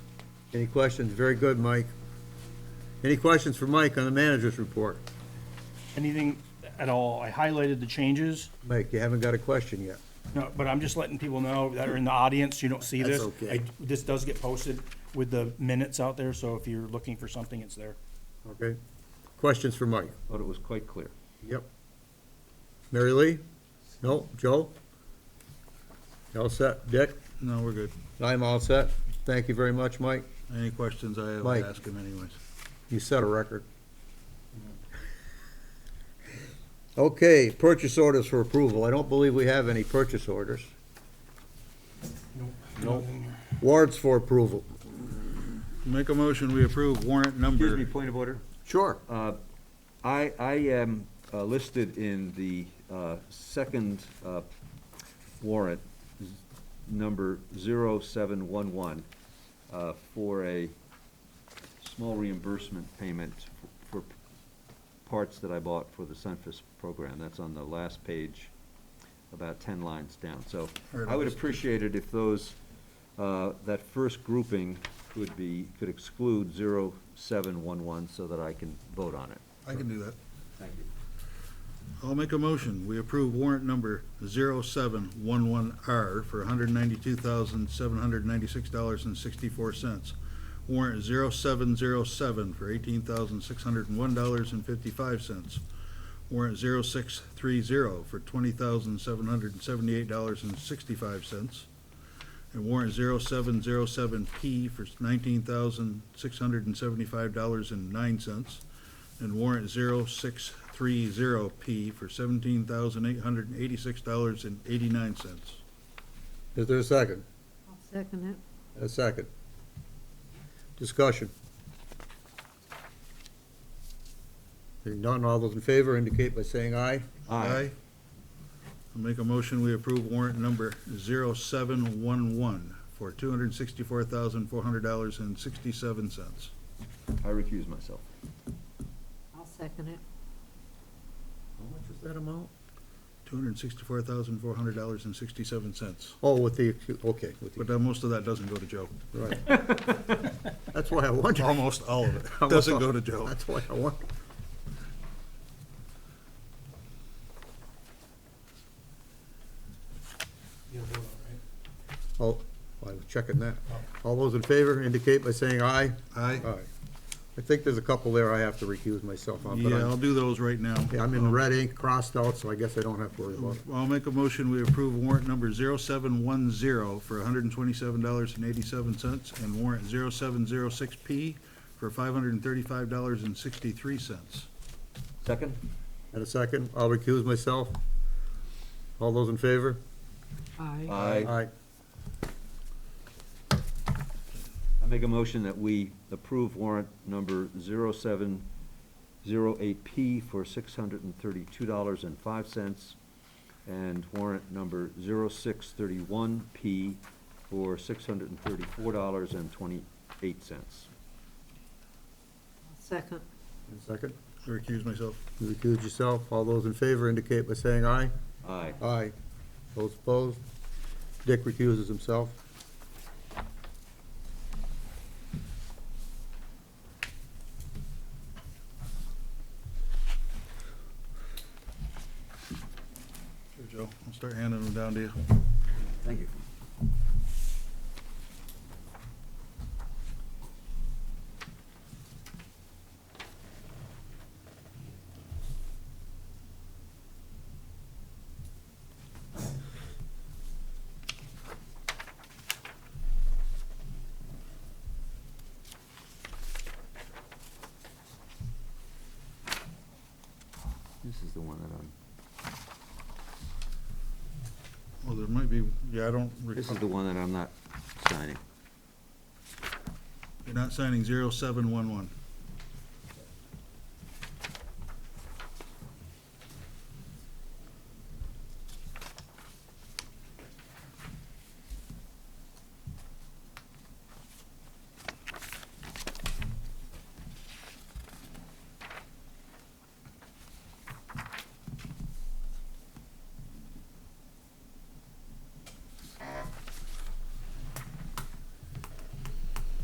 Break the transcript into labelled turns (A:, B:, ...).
A: Any questions? Very good, Mike. Any questions for Mike on the manager's report?
B: anything at all. I highlighted the changes,
A: Mike, you haven't got a question yet.
B: no, but I'm just letting people know that are in the audience, you don't see this.
A: That's okay.
B: I- This does get posted with the minutes out there, so if you're looking for something, it's there.
A: Okay? Questions for Mike?
C: Thought it was quite clear.
A: Yep. Mary Lee? No? Joe? You All set? Dick?
D: No, we're good.
A: I'm all set. Thank you very much, Mike.
D: Any questions, I
A: Mike.
D: will ask him anyways.
A: You set a record. Okay, purchase orders for approval. I don't believe we have any purchase orders. Nope. Warrants for approval.
D: Make a motion, we approve warrant
C: Excuse me,
D: number,
C: point of order.
A: Sure.
C: Uh, I, I am uh, listed in the uh, second uh, warrant, z- number 0711, uh, for a small reimbursement payment for parts that I bought for the Sunfest program. That's on the last page, about 10 lines down. So
D: Heard
C: I would
D: of it.
C: appreciate it if those, uh, that first grouping would be, could exclude 0711 so that I can vote on it.
D: I can do that.
C: Thank you.
D: I'll make a motion, we approve warrant number 0711R for $192,796.64. Warrant 0707 for $18,601.55. Warrant 0630 for $20,778.65. And warrant 0707P for $19,675.09 and warrant 0630P for $17,886.89.
A: Is there a second?
E: I'll second it.
A: A second. Discussion. Hearing none, all those in favor indicate by saying aye.
C: Aye.
D: I'll make a motion, we approve warrant number 0711 for $264,400.67.
C: I recuse myself.
E: I'll second it.
A: How much is that amount?
D: $264,400.67.
A: Oh, with the, okay, with the,
D: But uh, most of that doesn't go to Joe.
A: right. That's why I wondered.
D: Almost all of it doesn't go to Joe.
A: That's why I wondered. Oh, I was checking that. All those in favor indicate by saying aye.
D: Aye.
A: Aye. I think there's a couple there I have to recuse myself on, but
D: Yeah, I'll
A: I'm,
D: do those right now.
A: yeah, I'm in red ink crossed out, so I guess I don't have to worry about it.
D: I'll make a motion, we approve warrant number 0710 for $127.87 and warrant 0706P for $535.63.
C: Second?
A: In a second, I'll recuse myself. All those in favor?
E: Aye.
C: Aye.
A: Aye.
C: I make a motion that we approve warrant number 0708P for $632.05 and warrant number 0631P for $634.28.
E: I'll second.
A: In a second,
D: I recuse myself.
A: you recuse yourself. All those in favor indicate by saying aye.
C: Aye.
A: Aye. Those opposed? Dick recuses himself.
D: Here, Joe, I'll start handing them down to you.
C: Thank you. This is the one that I'm,
D: Well, there might be, yeah, I don't
C: this is
D: recall.
C: the one that I'm not signing.
D: You're not signing 0711.